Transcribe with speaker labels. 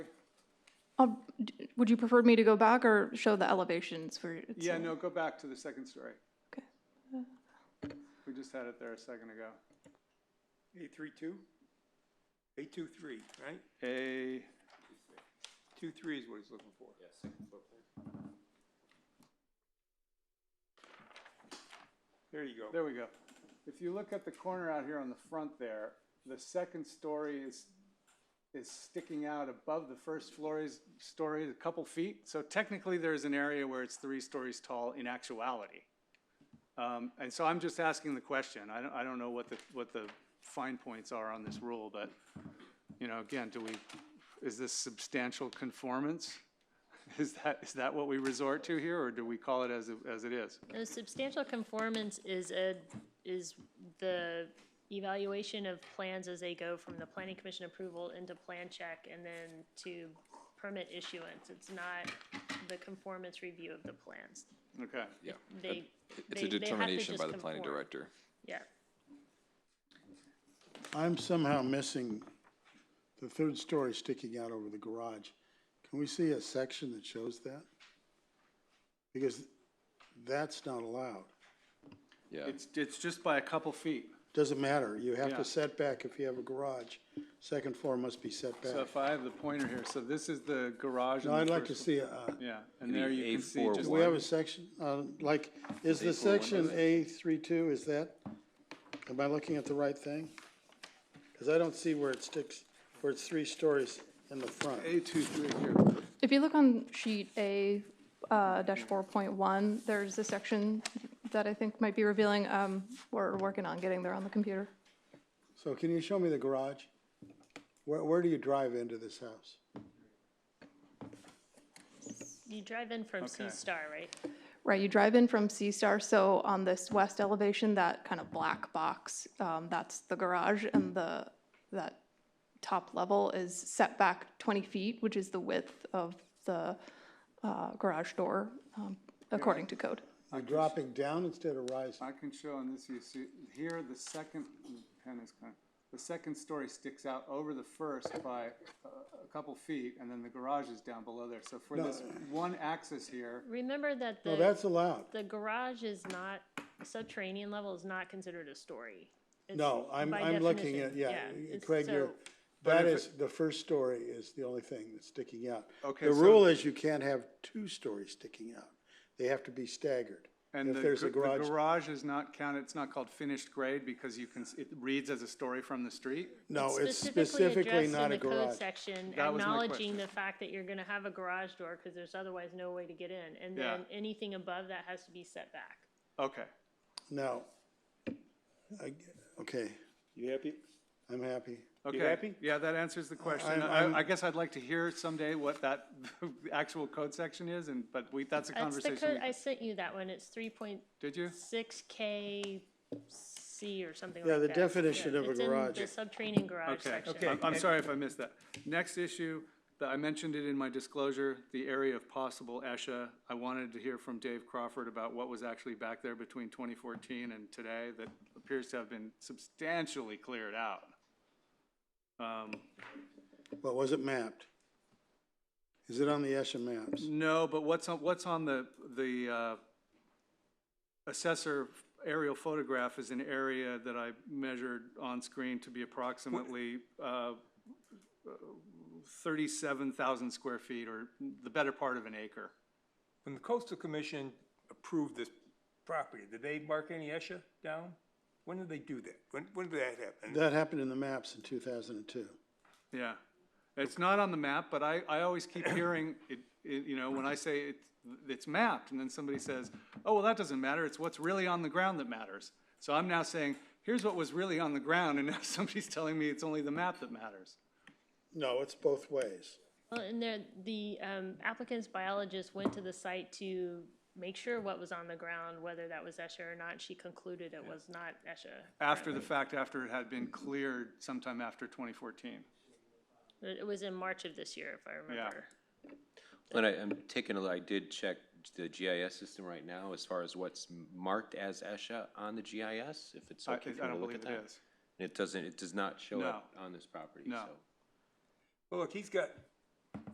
Speaker 1: I'll- d- Would you prefer me to go back or show the elevations for? it's-
Speaker 2: Yeah, no, go back to the second story.
Speaker 1: Okay.
Speaker 2: We just had it there a second ago.
Speaker 3: A32? A23, right?
Speaker 2: A, two three is what he's looking for.
Speaker 3: There you go.
Speaker 2: There we go. If you look at the corner out here on the front there, the second story is, is sticking out above the first floor's story a couple feet. So technically, there's an area where it's three stories tall in actuality. Um, And so I'm just asking the question. I don't, I don't know what the, what the fine points are on this rule, but, you know, again, do we, is this substantial conformance? Is that, is that what we resort to here, or do we call it as, it- as it is?
Speaker 4: No, substantial conformance is a, is the evaluation of plans as they go from the planning commission approval into plan check and then to permit issuance. It's not the conformance review of the plans.
Speaker 2: Okay.
Speaker 5: Yeah.
Speaker 4: They,
Speaker 5: It's
Speaker 4: they,
Speaker 5: a
Speaker 4: they have to
Speaker 5: determination
Speaker 4: just
Speaker 5: by the planning
Speaker 4: conform.
Speaker 5: director.
Speaker 4: Yeah,
Speaker 6: I'm somehow missing the third story sticking out over the garage. Can we see a section that shows that? Because that's not allowed.
Speaker 5: Yeah.
Speaker 2: It's, it's just by a couple feet.
Speaker 6: Doesn't matter, you have
Speaker 2: Yeah.
Speaker 6: to set back if you have a garage. Second floor must be set
Speaker 2: So
Speaker 6: back.
Speaker 2: if I have the pointer here, so this is the garage.
Speaker 6: No,
Speaker 2: on
Speaker 6: I'd
Speaker 2: the
Speaker 6: like to
Speaker 2: first-
Speaker 6: see, uh,
Speaker 2: Yeah, and there you can see just,
Speaker 6: do we have
Speaker 5: One.
Speaker 6: a section, uh, like, is the
Speaker 5: A4 one,
Speaker 6: section
Speaker 5: does
Speaker 6: A three two, is that, am I looking at the right thing? Because I don't see where it sticks, where it's three stories in the front.
Speaker 2: A two three here.
Speaker 1: If you look on sheet A uh, dash four point one, there's a section that I think might be revealing, um, we're working on getting there on the computer.
Speaker 6: So can you show me the garage? Where, where do you drive into this house?
Speaker 4: you drive in from
Speaker 2: Okay.
Speaker 4: C Star, right?
Speaker 1: Right, you drive in from C Star, so on this west elevation, that kind of black box, um, that's the garage and the, that top level is set back twenty feet, which is the width of the, uh, garage door, um, according to code.
Speaker 6: You're dropping down instead of rising.
Speaker 2: I can show on this, you see, here, the second, the pen is kind of, the second story sticks out over the first by a, a couple feet, and then the garage is down below there. So for this one axis here,
Speaker 4: Remember that
Speaker 6: No,
Speaker 4: the,
Speaker 6: Oh, that's allowed.
Speaker 4: the garage is not, subterranean level is not considered a story. It's
Speaker 6: No, I'm,
Speaker 4: by
Speaker 6: I'm looking at,
Speaker 4: definition,
Speaker 6: yeah,
Speaker 4: it's-
Speaker 6: Craig, you're,
Speaker 4: so-
Speaker 6: that
Speaker 2: if
Speaker 6: is, the first story is the only thing that's sticking out.
Speaker 2: Okay,
Speaker 6: The
Speaker 2: so-
Speaker 6: rule is you can't have two stories sticking out. They have to be staggered.
Speaker 2: and
Speaker 6: If
Speaker 2: the,
Speaker 6: there's a
Speaker 2: gar- the
Speaker 6: garage,
Speaker 2: garage is not counted, it's not called finished grade because you can, s- it reads as a story from the street.
Speaker 6: no, it's specifically
Speaker 4: addressed in
Speaker 6: not
Speaker 4: the
Speaker 6: a
Speaker 4: code
Speaker 6: garage.
Speaker 4: Section
Speaker 2: That was my question.
Speaker 4: acknowledging the fact that you're gonna have a garage door, cause there's otherwise no way to get in, and
Speaker 2: Yeah.
Speaker 4: then anything above that has to be set back.
Speaker 2: Okay,
Speaker 6: No. I- Okay,
Speaker 3: You happy?
Speaker 6: I'm happy.
Speaker 2: okay.
Speaker 3: happy?
Speaker 2: Yeah, that answers the question.
Speaker 6: I'm-
Speaker 2: I,
Speaker 6: I'm-
Speaker 2: I guess I'd like to hear someday what that actual code section is, and, but we, that's a
Speaker 4: That's the code,
Speaker 2: conversation. we-
Speaker 4: I sent you that one, it's three point
Speaker 2: Did you?
Speaker 4: six K C or something like
Speaker 6: Yeah,
Speaker 4: that.
Speaker 6: the definition
Speaker 4: Yeah,
Speaker 6: of a
Speaker 4: it's in
Speaker 6: garage.
Speaker 4: The subterranean garage
Speaker 2: Okay,
Speaker 4: section.
Speaker 2: I'm- I'm sorry if I missed that. Next issue, that I mentioned it in my disclosure, the area of possible ESHA. I wanted to hear from Dave Crawford about what was actually back there between 2014 and today that appears to have been substantially cleared out. Um,
Speaker 6: But was it mapped? Is it on the Esha maps?
Speaker 2: No, but what's on, what's on the, the uh, assessor aerial photograph is an area that I measured on screen to be approximately uh, 37,000 square feet, or the better part of an acre.
Speaker 3: When the coastal commission approved this property, did they mark any ESHA down? When did they do that? When, when did that happen?
Speaker 6: That happened in the maps in two thousand and two.
Speaker 2: Yeah. It's not on the map, but I, I always keep hearing, it, it- you know, when I say it, it's mapped, and then somebody says, oh, well, that doesn't matter, it's what's really on the ground that matters. So I'm now saying, here's what was really on the ground, and now somebody's telling me it's only the map that matters.
Speaker 6: No, it's both ways.
Speaker 4: Well, and there, the um, applicant's biologist went to the site to make sure what was on the ground, whether that was ESHA or not. She concluded it was not ESHA.
Speaker 2: After the fact, after it had been cleared sometime after 2014.
Speaker 4: It it was in March of this year, if I remember.
Speaker 7: But I, I'm taking a, I did check the GIS system right now as far as what's marked as ESHA on the GIS, if it's
Speaker 2: I I
Speaker 7: okay if you want
Speaker 2: don't
Speaker 7: to look
Speaker 2: believe
Speaker 7: at
Speaker 2: it
Speaker 7: that.
Speaker 2: is.
Speaker 7: And It doesn't, it does not show up on this property,
Speaker 2: No.
Speaker 7: so.
Speaker 3: Well, look, he's got